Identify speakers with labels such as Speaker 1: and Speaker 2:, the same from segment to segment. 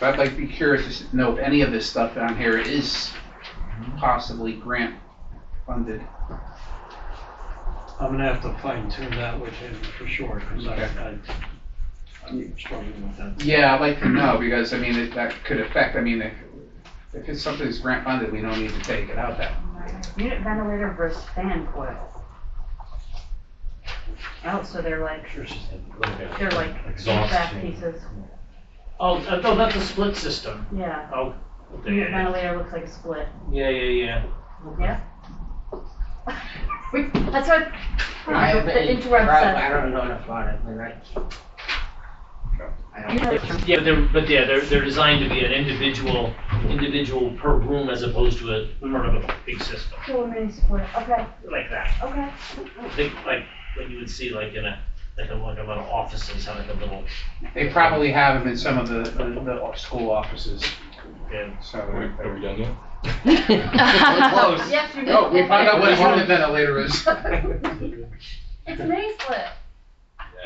Speaker 1: But I'd like to be curious to s- know if any of this stuff down here is possibly grant funded.
Speaker 2: I'm gonna have to fine tune that with him for sure, because I, I, I'm struggling with that.
Speaker 1: Yeah, I'd like to know, because I mean, it- that could affect, I mean, if, if it's something that's grant funded, we don't need to take it out that.
Speaker 3: Unit ventilator versus fan coil. Oh, so they're like, they're like back pieces,
Speaker 4: Oh, uh, no, that's a split system.
Speaker 3: yeah. Unit
Speaker 4: Yeah,
Speaker 3: ventilator looks like a split,
Speaker 4: yeah, yeah.
Speaker 3: yeah? We- That's what,
Speaker 5: I
Speaker 3: the
Speaker 5: haven't-
Speaker 3: interrupt
Speaker 5: I-
Speaker 3: said.
Speaker 5: I don't know enough about it, but I. I don't-
Speaker 4: Yeah, but they're, but yeah, they're, they're designed to be an individual, individual per room as opposed to a part of a big system,
Speaker 3: Cool mini split, okay,
Speaker 4: like that.
Speaker 3: okay.
Speaker 4: Think like what you would see like in a, like a, like a lot of offices, have like a little,
Speaker 1: They probably have them in some of the, the, the school offices,
Speaker 4: yeah.
Speaker 1: so.
Speaker 6: Are we done yet?
Speaker 1: Close.
Speaker 3: Yes, you did.
Speaker 1: Oh, we found out what a unit ventilator is.
Speaker 3: It's mini split.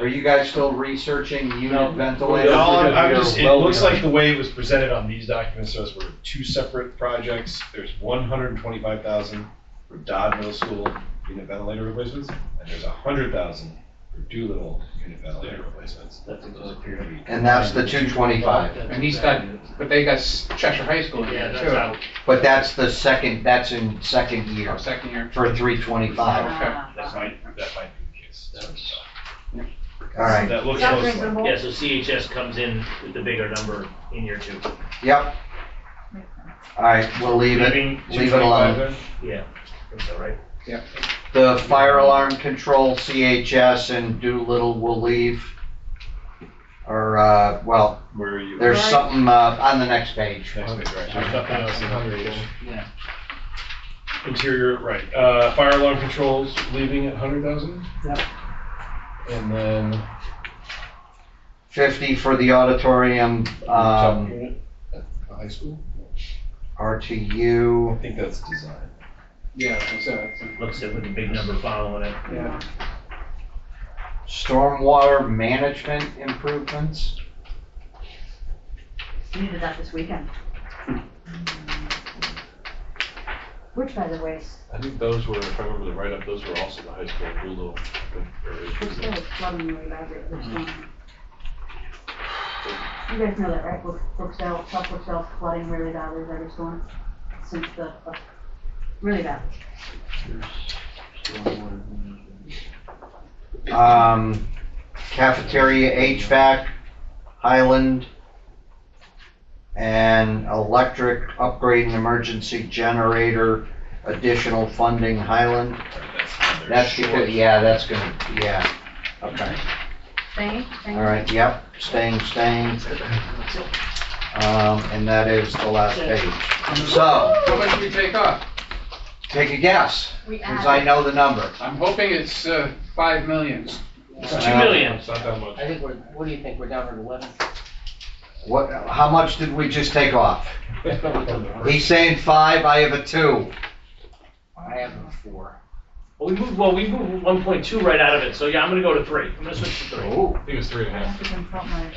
Speaker 7: Are you guys still researching
Speaker 4: No.
Speaker 7: unit
Speaker 6: No,
Speaker 7: ventilators?
Speaker 6: I'm I'm
Speaker 7: You're
Speaker 6: just, it
Speaker 7: well
Speaker 6: looks
Speaker 7: beyond-
Speaker 6: like the way it was presented on these documents, those were two separate projects. There's one hundred and twenty-five thousand for Dodd Middle School unit ventilator replacements, and there's a hundred thousand for Doolittle unit ventilator replacements.
Speaker 4: That's a
Speaker 6: Those appear to be.
Speaker 7: And that's the two twenty-five,
Speaker 1: And he's got, but they got Cheshire High School in
Speaker 4: Oh, Yeah,
Speaker 1: there
Speaker 4: that's
Speaker 1: too.
Speaker 4: out,
Speaker 7: but that's the second, that's in second year,
Speaker 1: Our second year.
Speaker 7: for three twenty-five.
Speaker 3: Ah.
Speaker 6: That might, that might be the case. So
Speaker 7: All right,
Speaker 6: That looks
Speaker 3: Sounds
Speaker 6: close. like-
Speaker 3: reasonable.
Speaker 4: yeah, so CHS comes in with the bigger number in year two.
Speaker 7: yep. All right, we'll leave it.
Speaker 4: Leaving,
Speaker 7: Leave it alone.
Speaker 6: 225
Speaker 4: yeah, I think so, right?
Speaker 7: The fire alarm control, CHS, and Doolittle will leave. Or, uh, well,
Speaker 6: then? Where are you?
Speaker 7: there's
Speaker 3: Right.
Speaker 7: something, uh, on the next page.
Speaker 6: Next page, right. There's nothing else in that page.
Speaker 5: Yeah.
Speaker 6: Interior, right, uh, fire alarm controls leaving at hundred thousand?
Speaker 2: Yep.
Speaker 6: And then.
Speaker 7: Um, Fifty for the auditorium,
Speaker 6: top
Speaker 7: um,
Speaker 6: unit at the High school? I
Speaker 7: RTU.
Speaker 6: think that's design.
Speaker 1: Yeah, so, it's-
Speaker 4: Looks it with the big number following it.
Speaker 1: yeah.
Speaker 7: Stormwater management improvements.
Speaker 3: You did that this weekend. Which, by the way, is-
Speaker 6: I think those were, if I remember the write-up, those were also the high school Google.
Speaker 3: which there was flooding really bad at this time. You guys know that, right? Brook- Brookdale, South Brookdale's flooding really badly every storm since the, uh, really bad.
Speaker 7: um, cafeteria HVAC, Highland, and electric upgrade and emergency generator, additional funding, Highland. That's because, yeah, that's gonna, yeah, okay,
Speaker 3: Staying, staying.
Speaker 7: all right, yep, staying, staying. Um, and that is the last page. So,
Speaker 1: How much did we take off?
Speaker 7: take a guess,
Speaker 3: We
Speaker 7: because I
Speaker 3: added,
Speaker 7: know the number.
Speaker 1: I'm hoping it's, uh, five million.
Speaker 4: Two million,
Speaker 6: It's not that much.
Speaker 5: I think we're, what do you think, we're down to eleven?
Speaker 7: What, how much did we just take off? He's saying five, I have a two.
Speaker 5: I have a four.
Speaker 4: well, we moved, well, we moved one point two right out of it, so yeah, I'm gonna go to three, I'm gonna switch to three.
Speaker 6: I think it was three and a
Speaker 3: I
Speaker 6: half.
Speaker 3: have to consult my,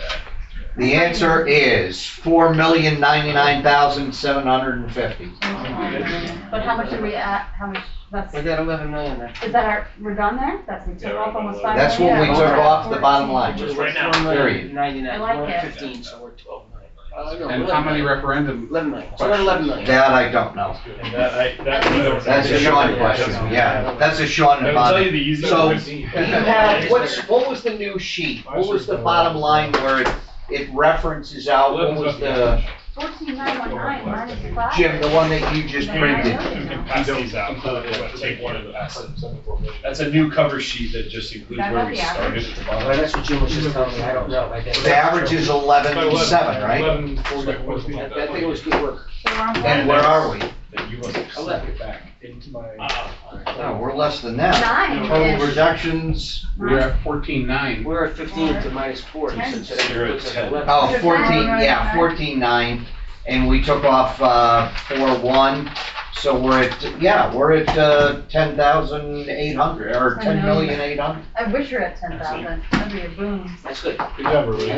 Speaker 7: The answer is four million ninety-nine thousand seven hundred and fifty.
Speaker 3: but how much did we add, how much, that's,
Speaker 5: We're at eleven million then.
Speaker 3: is that our, we're done there? That's, we
Speaker 6: Yeah,
Speaker 3: took
Speaker 6: we're
Speaker 3: off
Speaker 6: about
Speaker 3: almost
Speaker 6: done.
Speaker 3: five million?
Speaker 7: That's what we
Speaker 5: Yeah.
Speaker 7: took off the bottom line.
Speaker 4: Just right now.
Speaker 5: Four
Speaker 7: Period.
Speaker 5: million ninety-nine,
Speaker 3: I like
Speaker 5: we're
Speaker 3: it.
Speaker 5: at fifteen, so we're twelve million. Uh, no,
Speaker 1: And
Speaker 5: 11
Speaker 1: how many
Speaker 5: million.
Speaker 1: referendum?
Speaker 5: Eleven million, so we're at eleven million.
Speaker 7: That I don't know.
Speaker 6: And that,
Speaker 4: uh,
Speaker 6: I, that.
Speaker 7: That's a Sean question, yeah. That's a Sean
Speaker 6: I will tell you
Speaker 7: about
Speaker 6: the easy.
Speaker 7: So,
Speaker 6: one.
Speaker 7: you have, what's, what was the new sheet? What was the bottom line where it, it references out, what was the,
Speaker 3: Fourteen nine one nine minus five.
Speaker 7: Jim, the one that you just
Speaker 3: Then I
Speaker 7: printed?
Speaker 3: know
Speaker 6: You
Speaker 3: it
Speaker 6: can
Speaker 3: now.
Speaker 6: pass these out. Take one of the That's a new cover sheet that just includes
Speaker 3: That
Speaker 6: where
Speaker 3: got
Speaker 6: we
Speaker 3: the average?
Speaker 6: started at the
Speaker 5: Well,
Speaker 6: bottom.
Speaker 5: that's what Jim was just telling me, I don't know, I didn't.
Speaker 7: The average is eleven seven, right?
Speaker 6: Eleven forty, something like
Speaker 5: That,
Speaker 6: that.
Speaker 5: that thing was good work.
Speaker 3: So we're on board.
Speaker 7: And where are we?
Speaker 6: That you must have slipped it back into my.
Speaker 4: Uh,
Speaker 7: No, we're less than that. Total
Speaker 3: Nine is.
Speaker 7: reductions,
Speaker 1: We're at fourteen nine.
Speaker 5: We're at fifteen to minus four, you said, so that
Speaker 6: You're at
Speaker 5: puts us at
Speaker 6: 10.
Speaker 5: eleven.
Speaker 7: Oh, 14, yeah, 14.9, and we took off uh, 4.1, so we're at, yeah, we're at uh, 10,800, or
Speaker 3: I know.
Speaker 7: 10,800.
Speaker 3: I wish you were at ten thousand, that'd be a boom.
Speaker 5: That's good.
Speaker 6: Good job, everybody.